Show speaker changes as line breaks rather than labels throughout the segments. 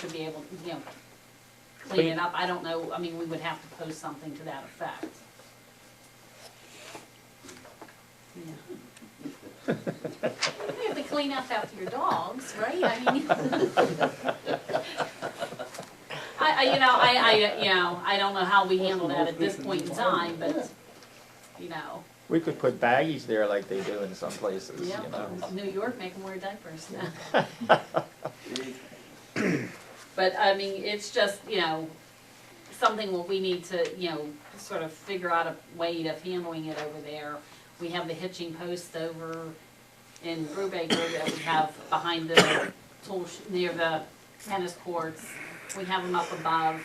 to be able, you know, clean it up. I don't know, I mean, we would have to post something to that effect. Yeah. You have to clean up after your dogs, right? I mean. I, I, you know, I, I, you know, I don't know how we handle that at this point in time, but, you know,
We could put baggies there like they do in some places, you
yeah,
know.
New York make them wear diapers now. But I mean, it's just, you know, something what we need to, you know, sort of figure out a way of handling it over there. We have the hitching post over in Brubaker that we have behind the tool, sh- near the tennis courts. We have them up above,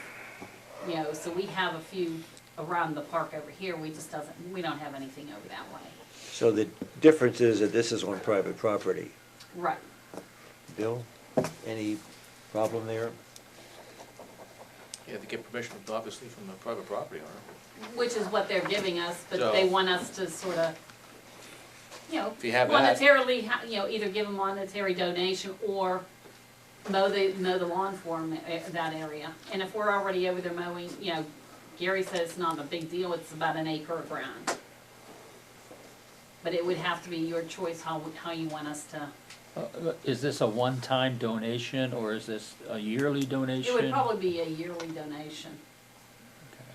you know, so we have a few around the park over here. We just doesn't, we don't have anything over that way.
So the difference is that this is on private property.
Right.
Bill, any problem there?
Yeah, to get permission, obviously, from the private property owner.
Which is what they're giving us, but they
So-
want us to sort of, you know,
If you have that-
monetarily, ha- you know, either give a monetary donation or mow the, mow the lawn for 'em, eh, that area. And if we're already over there mowing, you know, Gary said it's not a big deal, it's about an acre of ground. But it would have to be your choice how, how you want us to,
Uh, Is this a one-time donation, or is this a yearly
it
donation?
would probably be a yearly donation.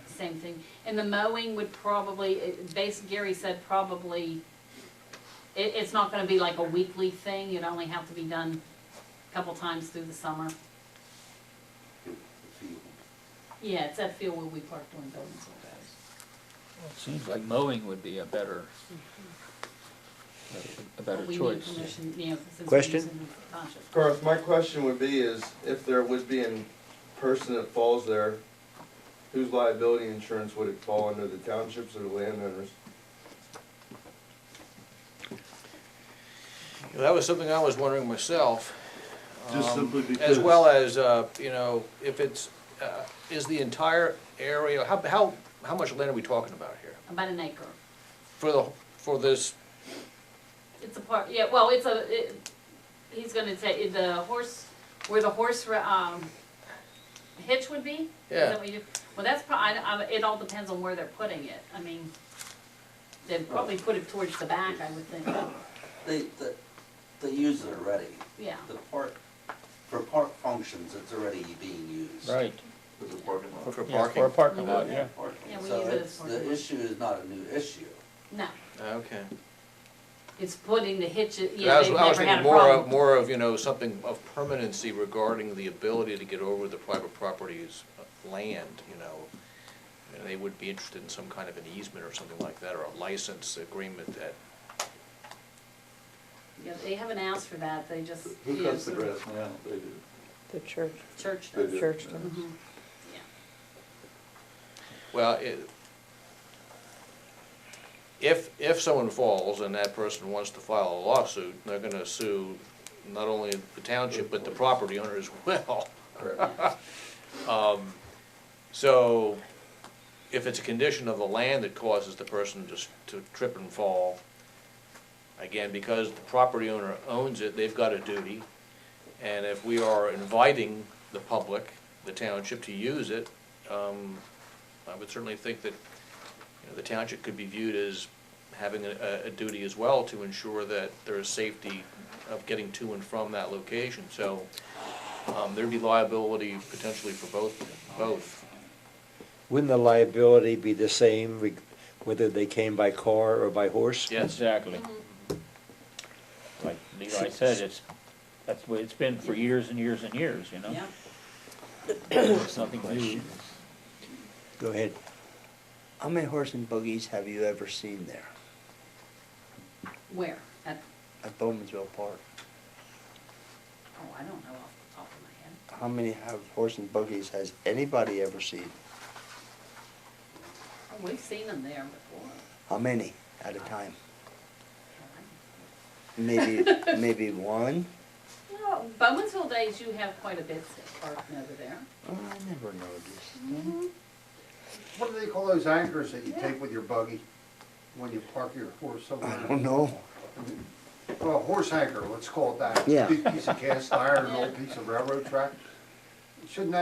Same thing. And the mowing would probably, it- base, Gary said probably, it, it's not gonna be like a weekly thing, it'd only have to be done a couple times through the summer. Yeah, it's that field where we park doing buildings all day.
Well, it Seems like mowing would be a better, a better
But We need
choice.
permission, you know, since we're
Question?
using the township.
Garth, my question would be is if there would be a person that falls there, whose liability insurance would it fall under, the townships or the landowners?
That was something I was wondering myself.
Just
um,
simply
As
because-
well as, uh, you know, if it's, uh, is the entire area, how, how, how much land are we talking about here?
About an acre.
For the, for this,
It's a park, yeah, well, it's a, it, he's gonna take, the horse, where the horse, ra- um, hitch would be? Is that
Yeah.
what you- Well, that's prob, I, I, it all depends on where they're putting it, I mean, they'd probably put it towards the back, I would think,
They, they, they use it already.
yeah.
The park, for park functions, it's already being used.
Right,
With the parking lot.
for
Yeah, Or a
parking?
parking lot, yeah.
Yeah, we
So
use it as
it's,
parking
the
lot.
issue is not a new issue.
No,
Okay.
it's putting the hitch,
I
yeah,
was,
they've
I was
never had
thinking
a
more of,
problem.
more of, you know, something of permanency regarding the ability to get over the private property's uh, land, you know. And They would be interested in some kind of an easement or something like that, or a license agreement that
Yeah, they haven't acuts for that, they just.
Who
yeah,
cuts the
sort
grass
of
now? They do.
The church,
Church
They
does,
do.
church does.
Mhm. yeah.
Well, it, if, if someone falls and that person wants to file a lawsuit, they're gonna sue not only the township, but the property owner as well. Um, So, if it's a condition of the land that causes the person just to trip and fall, again, because the property owner owns it, they've got a duty. And if we are inviting the public, the township, to use it, um, I would certainly think that, you know, the township could be viewed as having a, a duty as well to ensure that there is safety of getting to and from that location, so, um, there'd be liability potentially for both, both.
Wouldn't the liability be the same reg- whether they came by car or by horse?
Yes,
exactly.
Mm-hmm.
Like Levi said, it's, that's the way it's been for years and years and years, you know?
Yeah.
It's Nothing new.
Go ahead. How many horse and buggies have you ever seen there
Where? At,
at Bowmanville Park?
oh, I don't know off the top of my head.
How many have horse and buggies has anybody ever seen?
Oh, We've seen them there before.
How many at a time? Maybe, maybe one?
Well, Bowmansville days, you have quite a bit parking over there.
Oh, I never noticed.
What do they call those anchors that you
Yeah.
take with your buggy when you park your horse somewhere?
I don't know.
Well, horse anchor, let's call it that.
Yeah.
Big piece of cast iron, an
Yeah.
old piece of railroad track.
shouldn't that